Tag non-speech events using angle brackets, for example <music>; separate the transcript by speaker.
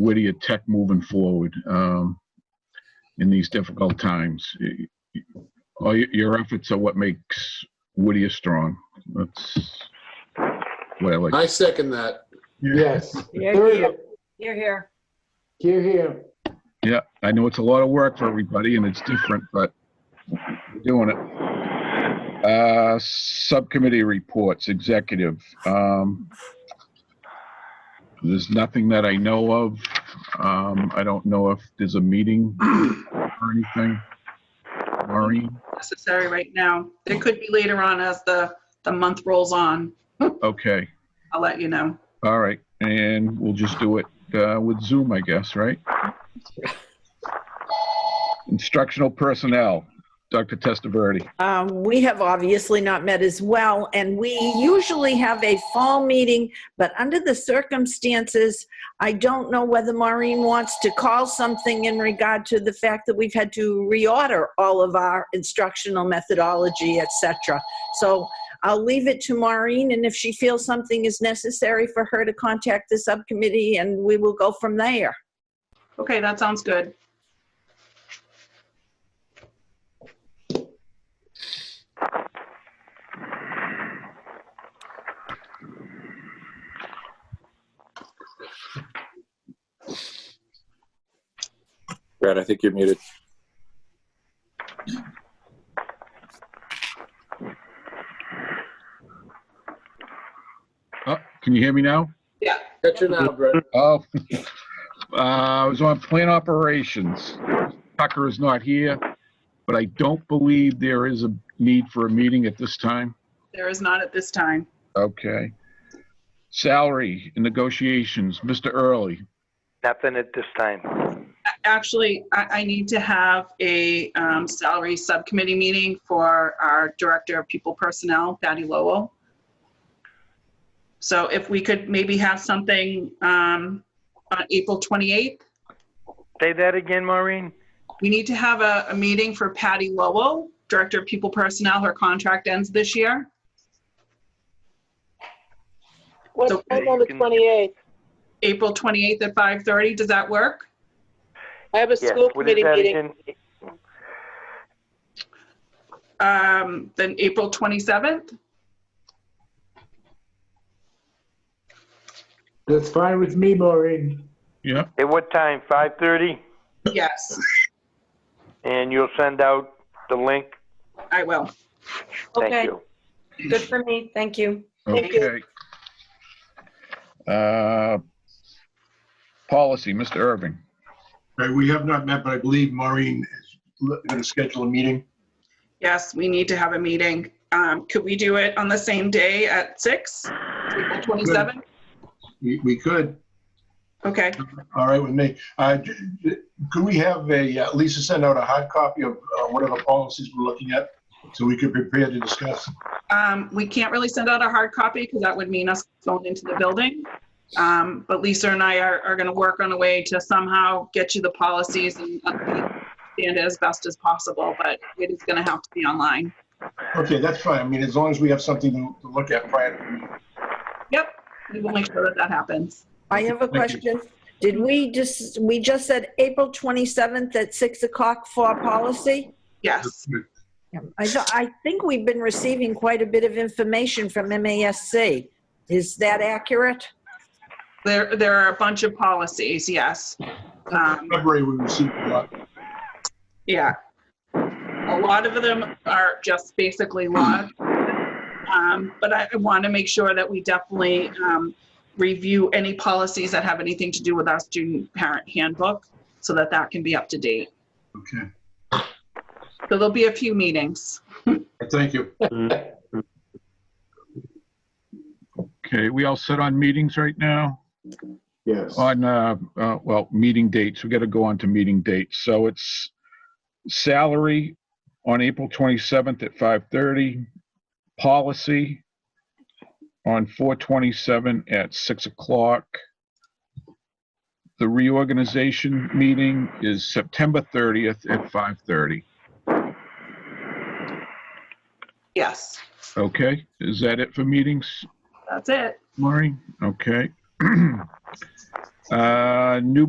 Speaker 1: Whittier Tech moving forward um, in these difficult times. Y- y- All your- your efforts are what makes Whittier strong. That's what I like.
Speaker 2: I second that.
Speaker 3: Yes.
Speaker 4: Yeah,
Speaker 3: Third,
Speaker 4: You're here.
Speaker 3: Here, here.
Speaker 1: Yeah, I know it's a lot of work for everybody and it's different, but we're doing it. Uh, subcommittee reports, executive. Um, there's nothing that I know of. Um, I don't know if there's a meeting or anything. Maureen,
Speaker 5: necessary right now. There could be later on as the, the month rolls on.
Speaker 1: okay,
Speaker 5: I'll let you know.
Speaker 1: all right, and we'll just do it, uh, with Zoom, I guess, right? Instructional personnel, Dr. Testaverde.
Speaker 4: Um, We have obviously not met as well, and we usually have a fall meeting, but under the circumstances, I don't know whether Maureen wants to call something in regard to the fact that we've had to reorder all of our instructional methodology, et cetera. So I'll leave it to Maureen, and if she feels something is necessary for her to contact the subcommittee, and we will go from there.
Speaker 5: Okay, that sounds good.
Speaker 6: Brad, I think you're muted.
Speaker 1: Oh, can you hear me now?
Speaker 2: Catch you now, Brett.
Speaker 1: Oh, <laughs> uh, I was on plant operations. Tucker is not here, but I don't believe there is a need for a meeting at this time.
Speaker 5: There is not at this time.
Speaker 1: Okay. Salary and negotiations, Mr. Early.
Speaker 7: Nothing at this time.
Speaker 5: A- Actually, I, I need to have a um, salary subcommittee meeting for our Director of People Personnel, Patty Lowell. So if we could maybe have something um, on April 28th,
Speaker 7: Say that again, Maureen?
Speaker 5: we need to have a, a meeting for Patty Lowell, Director of People Personnel. Her contract ends this year.
Speaker 8: What's
Speaker 5: So-
Speaker 8: time on the
Speaker 7: Can-
Speaker 8: 28th?
Speaker 5: April 28th at 5:30. Does that work?
Speaker 8: I have a
Speaker 7: Yes.
Speaker 8: school
Speaker 7: What is
Speaker 8: committee
Speaker 7: that
Speaker 8: meeting.
Speaker 7: again?
Speaker 5: Um, then April 27th?
Speaker 3: That's fine with me, Maureen.
Speaker 1: Yeah,
Speaker 7: At what time? 5:30?
Speaker 5: Yes,
Speaker 7: And you'll send out the link?
Speaker 5: I will.
Speaker 7: Thank
Speaker 8: Okay,
Speaker 7: you.
Speaker 4: Good for me, thank you.
Speaker 8: Thank you.
Speaker 1: okay. Uh, Policy, Mr. Irving.
Speaker 9: Right, we have not met, but I believe Maureen is going to schedule a meeting.
Speaker 5: Yes, we need to have a meeting. Um, could we do it on the same day at 6? April 27th?
Speaker 9: We we could,
Speaker 5: Okay,
Speaker 9: all right with me. Uh, j- j- Could we have a, uh, Lisa send out a hard copy of uh, whatever policies we're looking at so we can prepare to discuss?
Speaker 5: um, we can't really send out a hard copy because that would mean us going into the building. Um, but Lisa and I are, are gonna work on a way to somehow get you the policies and understand it as best as possible, but it is gonna have to be online.
Speaker 9: Okay, that's fine. I mean, as long as we have something to to look at prior to the meeting.
Speaker 5: Yep, we will make sure that that happens.
Speaker 4: I have a
Speaker 9: Thank you.
Speaker 4: question. Did we just, we just said April 27th at 6 o'clock for policy?
Speaker 5: Yes.
Speaker 4: I, thought- I think we've been receiving quite a bit of information from MASC. Is that accurate?
Speaker 5: There, there are a bunch of policies, yes. Um,
Speaker 9: February, we received a lot.
Speaker 5: yeah. A lot of them are just basically law. Um, but I want to make sure that we definitely, um, review any policies that have anything to do with our student parent handbook so that that can be up to date.
Speaker 9: Okay,
Speaker 5: So there'll be a few meetings.
Speaker 9: thank you.
Speaker 1: Okay, we all set on meetings right now?
Speaker 3: Yes.
Speaker 1: on, uh, uh, well, meeting dates, we got to go on to meeting dates. So it's salary on April 27th at 5:30, policy on 4/27 at 6 o'clock. The reorganization meeting is September 30th at 5:30.
Speaker 5: Yes,
Speaker 1: Okay, is that it for meetings?
Speaker 5: that's it.
Speaker 1: Maureen? Okay. <clears throat> Uh, New